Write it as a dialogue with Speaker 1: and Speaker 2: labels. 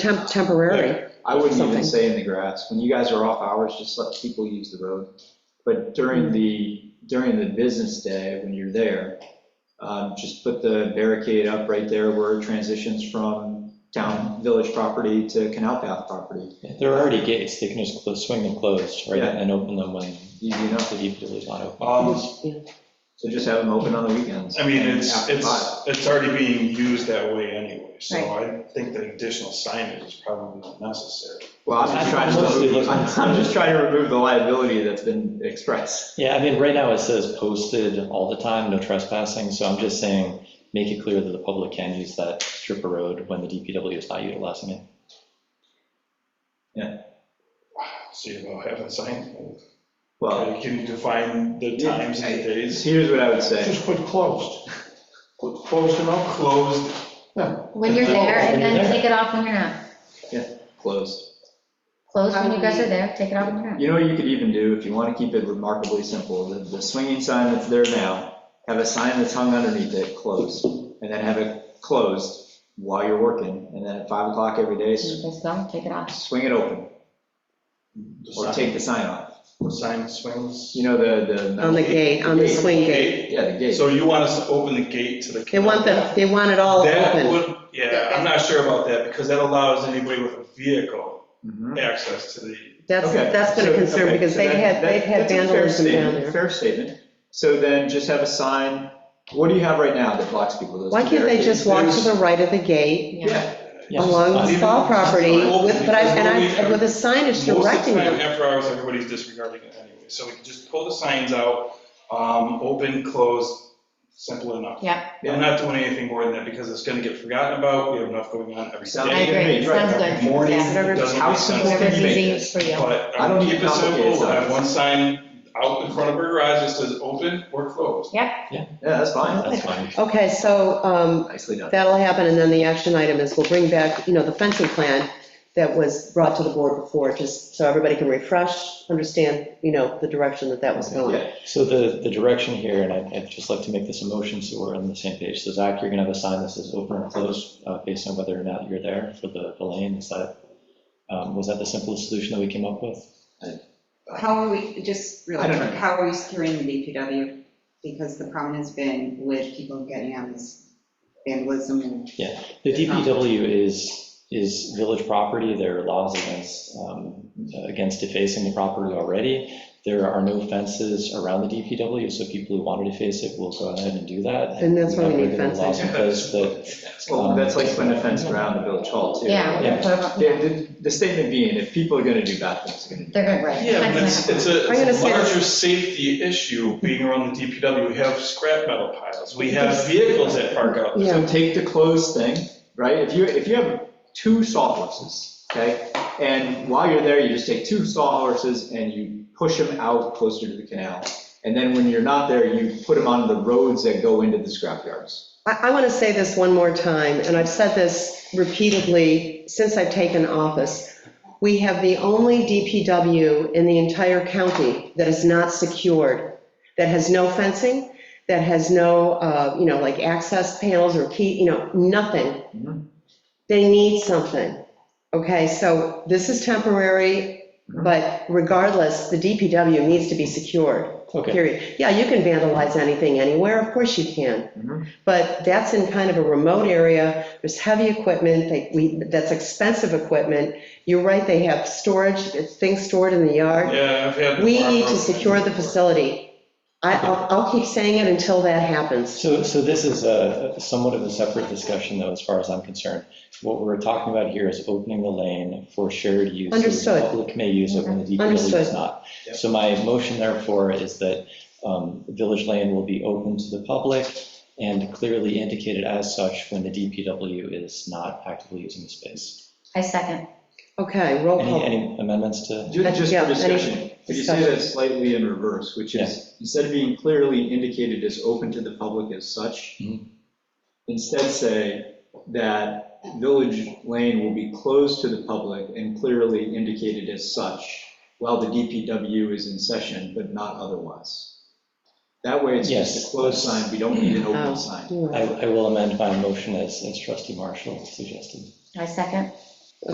Speaker 1: temp- temporary.
Speaker 2: I wouldn't
Speaker 1: Something.
Speaker 2: even say in the grass. When you guys are off hours, just let people use the road. But
Speaker 3: Mm-hmm.
Speaker 2: during the, during the business day, when you're there, um, just put the barricade up right there where it transitions from town, village property to canal path property.
Speaker 3: There are already gates, they can just close, swing them closed, right,
Speaker 2: Yeah.
Speaker 3: and open them when
Speaker 2: Easy enough.
Speaker 3: the DPW is not open.
Speaker 4: Um,
Speaker 2: So just have them open on the weekends.
Speaker 4: I mean, it's,
Speaker 2: After five.
Speaker 4: it's, it's already being used that way anyway, so I
Speaker 5: Right.
Speaker 4: think that additional signage is probably not necessary.
Speaker 2: Well, I'm just trying
Speaker 3: Mostly looks-
Speaker 2: to, I'm I'm just trying to remove the liability that's been expressed.
Speaker 3: Yeah, I mean, right now it says posted all the time, no trespassing, so I'm just saying, make it clear that the public can use that strip of road when the DPW is not utilizing it.
Speaker 4: See about having sign,
Speaker 2: Well,
Speaker 4: you can define the times and the days.
Speaker 2: here's what I would say.
Speaker 6: Just put closed. Put closed and all.
Speaker 4: Closed,
Speaker 5: When you're there, and then take it off when you're not.
Speaker 2: Closed.
Speaker 5: Close when you guys are there, take it off when you're not.
Speaker 2: You know what you could even do, if you want to keep it remarkably simple, the the swinging sign that's there now, have a sign that's hung underneath it, closed, and then have it closed while you're working, and then at 5 o'clock every day, s-
Speaker 5: You guys go, take it off.
Speaker 2: swing it open,
Speaker 4: the
Speaker 2: or
Speaker 4: sign,
Speaker 2: take the sign off.
Speaker 4: the sign swings.
Speaker 2: You know, the, the.
Speaker 1: On the gate, on the swing gate.
Speaker 2: Yeah, the gate.
Speaker 4: So you want us to open the gate to the.
Speaker 1: They want the, they want it all
Speaker 4: That
Speaker 1: open.
Speaker 4: would, yeah, I'm not sure about that, because that allows anybody with a vehicle
Speaker 1: Mm-hmm.
Speaker 2: Mhm.
Speaker 4: access to the,
Speaker 1: That's,
Speaker 2: Okay,
Speaker 1: that's been a
Speaker 2: so-
Speaker 1: concern
Speaker 2: okay,
Speaker 1: because
Speaker 2: so
Speaker 1: they've
Speaker 2: that-
Speaker 1: had,
Speaker 2: that-
Speaker 1: they've had
Speaker 2: that's a fair
Speaker 1: vandalism down
Speaker 2: statement,
Speaker 1: there.
Speaker 2: Fair statement. So then just have a sign, what do you have right now that blocks people? Those
Speaker 1: Why can't they
Speaker 2: barricades?
Speaker 1: just walk to the right of the gate
Speaker 2: Yeah,
Speaker 3: Yeah.
Speaker 1: along
Speaker 3: Uh,
Speaker 1: the spa property with, but I, and I, with a signage
Speaker 4: Most of the
Speaker 1: directing
Speaker 4: time,
Speaker 1: them?
Speaker 4: After hours, everybody's disregarding it anyway, so we can just pull the signs out, um, open, close, simple enough.
Speaker 5: Yeah.
Speaker 4: I'm not doing anything more than that, because it's gonna get forgotten about, we have enough going on every
Speaker 2: Sounds
Speaker 4: day.
Speaker 5: I
Speaker 2: good.
Speaker 5: agree,
Speaker 2: Right.
Speaker 5: sounds good.
Speaker 4: Morning,
Speaker 5: Yeah.
Speaker 4: it doesn't
Speaker 2: How
Speaker 4: make
Speaker 2: simple
Speaker 4: sense.
Speaker 2: can
Speaker 5: Whatever's
Speaker 2: you make
Speaker 5: easy
Speaker 2: this?
Speaker 5: for you.
Speaker 4: But
Speaker 2: I
Speaker 4: I
Speaker 2: don't
Speaker 4: don't
Speaker 2: need
Speaker 4: keep it simple, we'll
Speaker 2: complicated
Speaker 4: have one sign out in front of her garage that says open or closed.
Speaker 2: Yeah, that's fine.
Speaker 3: That's fine.
Speaker 1: Okay, so, um,
Speaker 2: Nicely done.
Speaker 1: that'll happen, and then the action item is we'll bring back, you know, the fencing plan that was brought to the board before, just so everybody can refresh, understand, you know, the direction that that was going.
Speaker 2: Yeah,
Speaker 3: So the, the direction here, and I- I'd just like to make this a motion so we're on the same page. So Zach, you're gonna have a sign that says open or closed, uh, based on whether or not you're there for the, the lane, is that, um, was that the simplest solution that we came up with?
Speaker 7: How are we, just
Speaker 2: I
Speaker 7: really
Speaker 2: don't
Speaker 7: quick,
Speaker 2: know.
Speaker 7: how are we securing the DPW? Because the problem has been with people getting on this vandalism and.
Speaker 3: The DPW is, is village property, there are laws against, um, against defacing the property already. There are no fences around the DPW, so people who want to deface it will go ahead and do that.
Speaker 1: And that's why we need
Speaker 3: have regular laws in place that-
Speaker 2: well, that's like putting a fence around the village hall too.
Speaker 5: Yeah. we're gonna put them up.
Speaker 2: The, the- the statement being, if people are gonna do bad things, they're gonna do.
Speaker 5: They're good, right.
Speaker 4: Yeah, but it's, it's a
Speaker 1: I'm gonna
Speaker 4: it's a
Speaker 1: say this-
Speaker 4: larger safety issue being around the DPW. We have scrap metal piles, we have vehicles that park out there.
Speaker 1: Yeah.
Speaker 2: So take the closed thing, right? If you, if you have two sawhorses, okay? And while you're there, you just take two sawhorses and you push them out closer to the canal. And then when you're not there, you put them on the roads that go into the scrapyards.
Speaker 1: I, I want to say this one more time, and I've said this repeatedly since I've taken office. We have the only DPW in the entire county that is not secured, that has no fencing, that has no, uh, you know, like access panels or key, you know, nothing.
Speaker 2: Mhm.
Speaker 1: they need something. Okay, so this is temporary, but regardless, the DPW needs to be secured,
Speaker 3: Okay,
Speaker 1: period. Yeah, you can vandalize anything anywhere, of course you
Speaker 2: Mhm.
Speaker 3: Mm-hmm.
Speaker 1: can. But that's in kind of a remote area, there's heavy equipment, they- we- that's expensive equipment. You're right, they have storage, things stored in the yard.
Speaker 4: Yeah, I've had.
Speaker 1: We need to secure the facility. I- I'll I'll keep saying it until that happens.
Speaker 3: so, so this is a somewhat of a separate discussion though, as far as I'm concerned. What we're talking about here is opening the lane for shared use. so the
Speaker 1: Understood.
Speaker 3: Public may use it when the DPW
Speaker 1: Understood.
Speaker 3: does not. So my motion therefore is that um, Village Lane will be open to the public and clearly indicated as such when the DPW is not actively using the space.
Speaker 5: I second.
Speaker 1: Okay, roll
Speaker 3: Any,
Speaker 1: call.
Speaker 3: any amendments to,
Speaker 2: Ju- Just
Speaker 1: Yeah,
Speaker 2: for
Speaker 1: any
Speaker 2: discussion, could you say
Speaker 1: discussion?
Speaker 2: that slightly in reverse, which is, instead of being clearly indicated as open to the public as such,
Speaker 3: Mhm.
Speaker 2: instead say that Village Lane will be closed to the public and clearly indicated as such while the DPW is in session, but not otherwise. That way, it's just a
Speaker 3: Yes.
Speaker 2: closed sign, we don't need an
Speaker 1: Oh.
Speaker 2: open sign.
Speaker 1: You're
Speaker 3: I,
Speaker 1: right.
Speaker 3: I will amend my motion as, as trustee Marshall suggested.
Speaker 5: I second.